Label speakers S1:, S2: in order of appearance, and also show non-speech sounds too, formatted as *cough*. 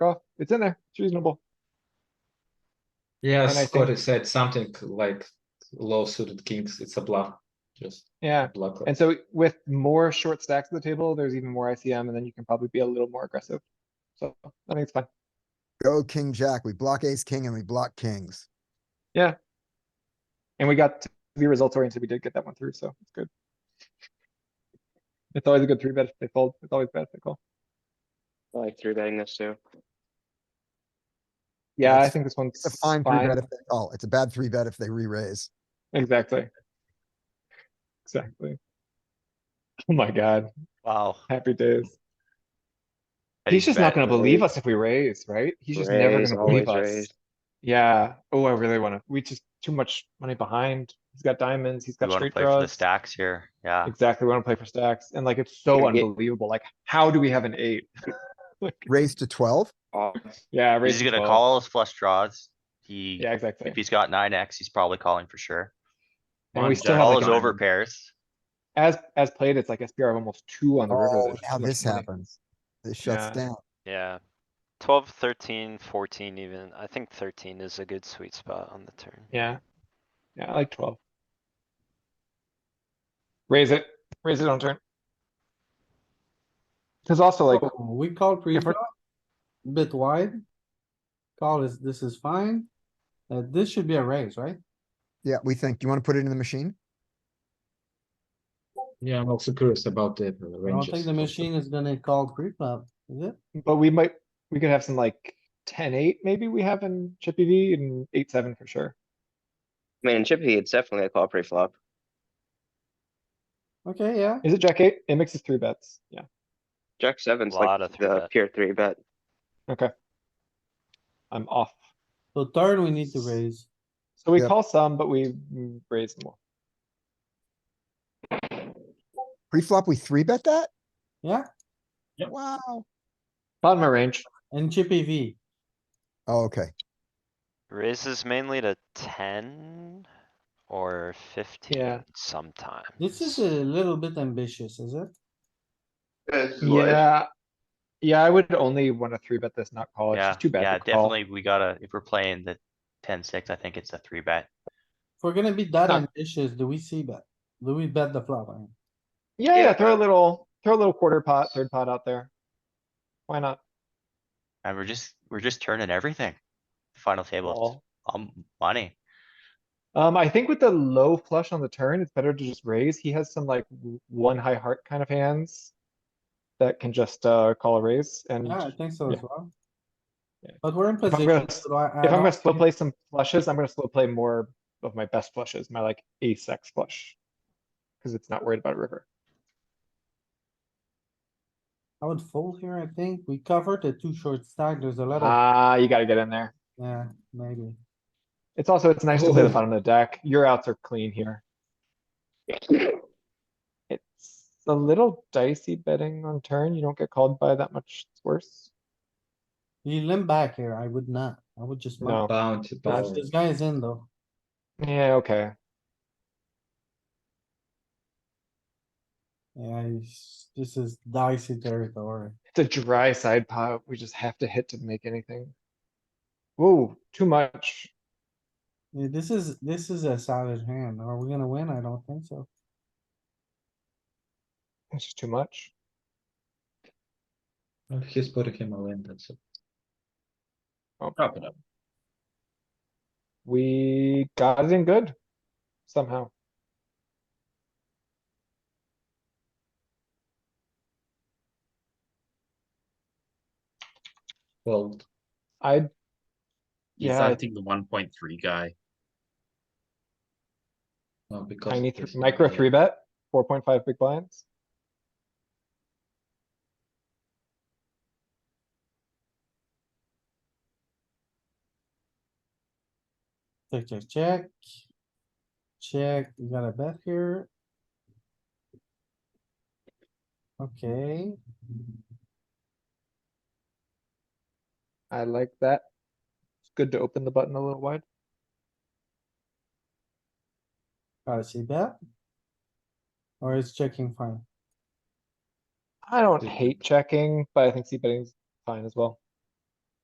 S1: Oh, It's in there. It's reasonable.
S2: Yeah,
S1: And I think-
S2: Scotty said something like low suited kings, it's a bluff, just
S1: Yeah.
S2: bluff.
S1: And so with more short stacks at the table, there's even more ICM and then you can probably be a little more aggressive. So I think it's fine.
S3: Go king jack. We block ace king and we block kings.
S1: And we got to be results oriented. We did get that one through, so it's good. It's always a good three bet if they fold. It's always bad if they call.
S4: I like three betting this too.
S1: Yeah, I
S3: That's-
S1: think this one's
S3: It's a fine three bet
S1: fine.
S3: if they call. It's a bad three bet if they re-raise.
S1: Exactly. Exactly. Oh my god,
S5: Wow.
S1: happy days.
S5: Hey,
S1: He's just not
S5: bet.
S1: gonna believe
S4: raise.
S1: us if we raise, right? He's just never
S4: Raise,
S1: gonna believe
S4: always
S1: us.
S4: raise.
S1: Yeah. Oh, I really wanna, we just too much money behind. He's got diamonds, he's
S5: We
S1: got
S5: wanna
S1: straight
S5: play for the
S1: draws.
S5: stacks here, yeah.
S1: Exactly, we wanna play for stacks and like it's so
S4: Gonna get-
S1: unbelievable. Like, how do we have an eight? *laughs* Like,
S3: Raise to twelve.
S4: Oh,
S1: Yeah.
S5: He's
S1: raise to
S5: gonna
S1: 12.
S5: call his flush draws. He,
S1: Yeah, exactly.
S5: if he's got nine X, he's probably calling for sure.
S1: And we
S2: One
S1: still
S2: jack
S1: have
S5: All
S1: like
S5: his
S1: an-
S5: over pairs.
S1: as, as played, it's like SPR of almost two on the river.
S3: Oh,
S1: There's just
S3: now
S1: too much
S3: this
S1: money.
S3: happens. This shuts
S1: Yeah.
S3: down.
S6: Yeah, twelve, thirteen, fourteen even. I think thirteen is a good sweet spot on the turn.
S1: Yeah. Yeah, I like twelve. Raise it, raise it on turn. Cause also like,
S7: Oh, We call pre-flop, bit wide. Call is, this is fine. Uh, this should be a raise, right?
S3: Yeah, we think. You wanna put it in the machine?
S2: Yeah, I'm also curious about the uh,
S7: I
S2: ranges.
S7: don't think the machine is gonna call pre-flop, is it?
S1: but we might, we could have some like ten eight, maybe we have in Chippy V and eight seven for sure.
S4: I mean, in Chippy, it's definitely a call pre-flop.
S7: Okay, yeah.
S1: Is it jack eight? It mixes three bets, yeah.
S4: Jack seven's like
S6: Lot of three
S4: the
S6: bet.
S4: pure three bet.
S1: I'm off.
S7: So third, we need to raise.
S1: So we
S3: Yep.
S1: call some, but we mm, raise more.
S3: Pre-flop, we three bet that?
S7: Yeah,
S3: Wow.
S1: Bottom of range,
S7: and Chippy V.
S3: Oh, okay.
S6: Raises mainly to ten or fifteen sometimes.
S7: This is a little bit ambitious, is it?
S1: yeah. Yeah, I would only wanna three bet this, not call. oh, It's
S6: Yeah,
S1: just too
S6: yeah,
S1: bad to call.
S6: definitely, we gotta, if we're playing the ten six, I think it's a three bet.
S7: If we're gonna be that
S1: Huh.
S7: ambitious, do we see bet? Do we bet the flop? I mean?
S1: Yeah,
S4: Yeah.
S1: yeah, throw a little, throw a little quarter pot, third pot out there. Why not?
S6: And we're just, we're just turning everything. Final table,
S1: Call.
S6: um, money.
S1: Um, I think with the low flush on the turn, it's better to just raise. He has some like w- one high heart kind of hands. That can just, uh, call a raise and
S7: Yeah, I
S1: if
S7: think so as
S1: Yeah.
S7: well.
S1: Yeah.
S7: But we're in
S1: If I'm
S7: position.
S1: gonna-
S7: so I- I
S1: I'm gonna
S7: don't
S1: slow
S7: think-
S1: play some flushes, I'm gonna slow play more of my best flushes, my like ace X flush. Cause it's not worried about river.
S7: I would fold here, I think. We covered the two short stack. There's a lot of,
S1: Ah, you gotta get in there.
S7: yeah, maybe.
S1: It's also, it's nice to play the
S2: Ooh.
S1: bottom of the deck. Your outs are clean here. It's a little dicey betting on turn. You don't get called by that much. It's worse.
S7: You limp back here. I would not. I would just.
S1: No.
S2: Bounty,
S7: Gosh,
S2: bounty.
S7: This guy is in though.
S1: Yeah, okay.
S7: Yeah, he's, this is dicey territory.
S1: It's a dry side pot. We just have to hit to make anything. Whoa, too much.
S7: Yeah, This is, this is a solid hand. Are we gonna win? I don't think so.
S1: It's just too much.
S2: He's putting him all in, that's it.
S1: Oh.
S2: Wrap it up.
S1: We got it in good somehow.
S2: Well,
S1: I,
S8: He's,
S1: yeah,
S8: I
S1: I
S8: think, the one point three guy.
S2: no, because.
S1: tiny
S2: it's
S1: th- micro
S2: not
S1: three
S2: yet.
S1: bet, four point five big blinds.
S7: Check, check, check. Check, you got a bet here. Okay,
S1: I like that. It's good to open the button a little wide.
S7: gotta see bet. Or is checking fine?
S1: I don't hate checking, but I think c betting's fine as well.